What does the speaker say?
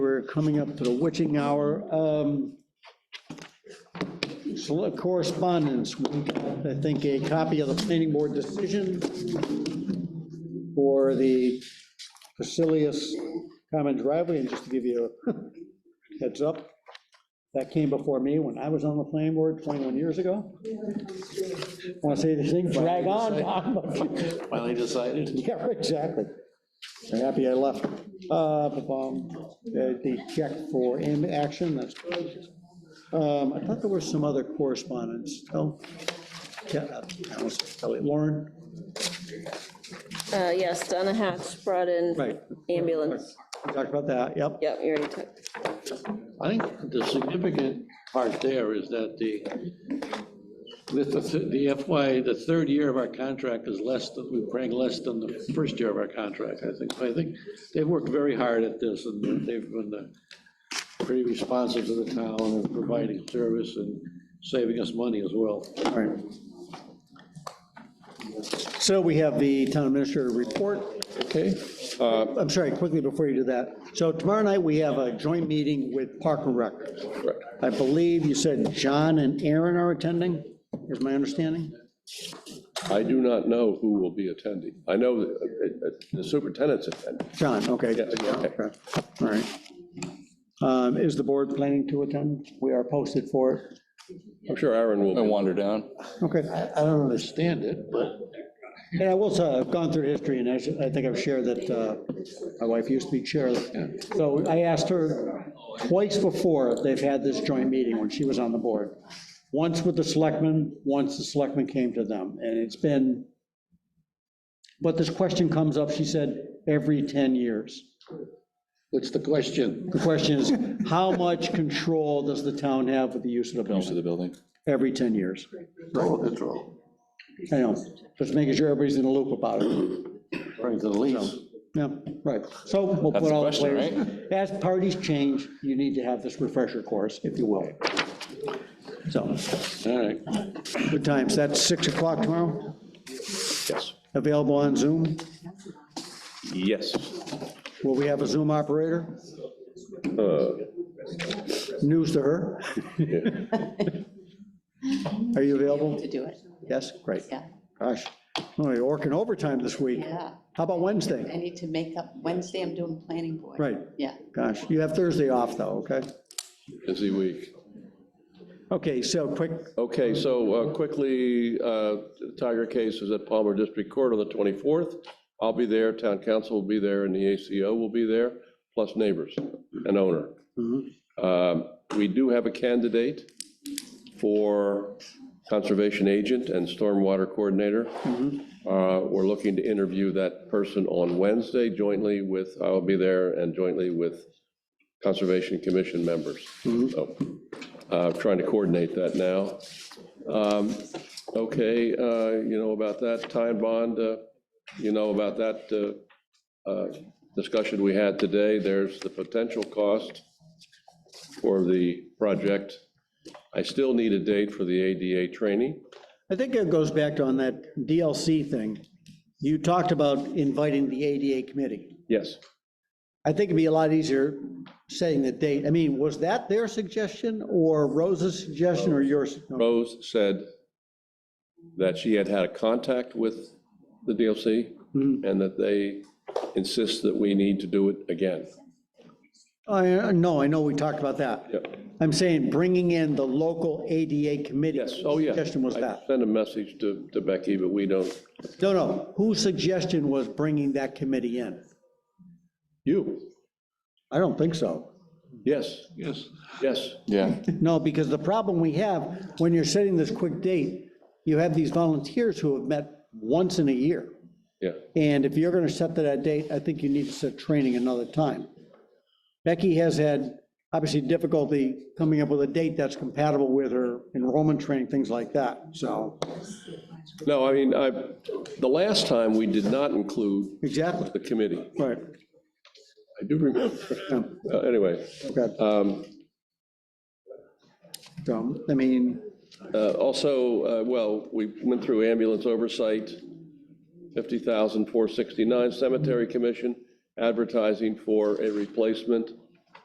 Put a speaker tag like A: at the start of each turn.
A: We're coming up to the witching hour. Um, Select correspondence, we got, I think, a copy of the planning board decision for the Facilious Common Driveway, and just to give you a heads up, that came before me when I was on the planning board 21 years ago. Want to say this thing, drag on, Tom, but-
B: Finally decided.
A: yeah, exactly. I'm happy I left. Uh, ba-bum. Uh, The check for M action, that's, um, I thought there was some other correspondence. Oh, yeah, uh, that was Kelly Lauren,
C: Uh, Yes, Donna Hatch brought in
A: right.
C: ambulance.
A: We talked about that, yep.
C: Yep, you already took.
B: I think the significant part there is that the, that the th- the FY, the third year of our contract is less than, we bring less than the first year of our contract, I think. I think they've worked very hard at this, and they've been uh, pretty responsive to the town and providing service and saving us money as well.
A: All right. So we have the town administrator report.
D: Okay, uh,
A: I'm sorry, quickly before you do that. So tomorrow night, we have a joint meeting with Park and Rec.
D: correct.
A: I believe you said John and Aaron are attending, is my understanding?
D: I do not know who will be attending. I know that, uh, uh, the superintendent's attending.
A: John, okay.
D: Yeah, yeah, okay.
A: Okay, All right. Um, Is the board planning to attend? We are posted for it.
D: I'm sure Aaron will
E: I
D: be.
E: wander down.
A: Okay.
B: I I don't understand it, but
A: And I will say, I've gone through history, and I should- I think I've shared that uh, my wife used to be chair. So I asked her twice before, they've had this joint meeting when she was on the board. Once with the selectmen, once the selectmen came to them, and it's been, but this question comes up, she said, every 10 years.
B: what's the question?
A: The question is, how much control does the town have with the use of the
E: Most of the
A: building?
E: building.
A: Every 10 years.
B: Total control.
A: I know, just making sure everybody's in the loop about it.
B: According to the lease.
A: Yeah, right. So we'll
E: That's
A: put
E: the
A: all the
E: question,
A: players. As parties change, you need to have this refresher course, if you will. So,
B: All right.
A: good times. That's 6 o'clock tomorrow,
D: Yes.
A: available on Zoom.
D: Yes.
A: Will we have a Zoom operator?
D: Uh,
A: News to her.
D: yeah.
A: Are you available?
F: to do it,
A: Yes, great.
F: yeah,
A: Gosh, oh, you're working overtime this week.
F: yeah.
A: How about Wednesday?
F: I need to make up, Wednesday I'm doing planning board.
A: Right.
F: Yeah.
A: Gosh, you have Thursday off, though, okay?
D: Busy week.
A: Okay, so quick,
D: Okay, so uh, quickly, uh, Tiger case is at Palmer District Court on the 24th. I'll be there, town council will be there, and the ACO will be there, plus neighbors and owner. Um, We do have a candidate for conservation agent and stormwater coordinator. Uh, We're looking to interview that person on Wednesday jointly with, I'll be there, and jointly with Conservation Commission members. So uh, Trying to coordinate that now. Um, Okay, uh, you know about that time bond, uh, you know about that uh, uh, discussion we had today. There's the potential cost for the project. I still need a date for the ADA training.
A: I think it goes back to on that DLC thing. You talked about inviting the ADA committee.
D: Yes.
A: I think it'd be a lot easier setting the date. I mean, was that their suggestion or Rose's suggestion or yours? No.
D: Rose said that she had had a contact with the DLC
A: Mm-hmm.
D: and that they insist that we need to do it again.
A: I, no, I know we talked about that.
D: Yeah.
A: I'm saying bringing in the local ADA committee.
D: Yes, oh, yeah.
A: Suggestion was
D: I
A: that.
D: Sent a message to, to Becky, but we don't,
A: No, no, whose suggestion was bringing that committee in?
D: you,
A: I don't think so.
D: yes,
B: Yes.
D: yes.
E: Yeah.
A: No, because the problem we have, when you're setting this quick date, you have these volunteers who have met once in a year.
D: Yeah,
A: And if you're going to set to that date, I think you need to set training another time. Becky has had, obviously, difficulty coming up with a date that's compatible with her enrollment training, things like that, so,
D: no, I mean, I, the last time, we did not include
A: exactly,
D: the committee.
A: right,
D: I do remember.
A: Yeah.
D: Uh, Anyway,
A: okay.
D: um,
A: So, I mean,
D: uh, also, uh, well, we went through ambulance oversight, 50,469 cemetery commission, advertising for a replacement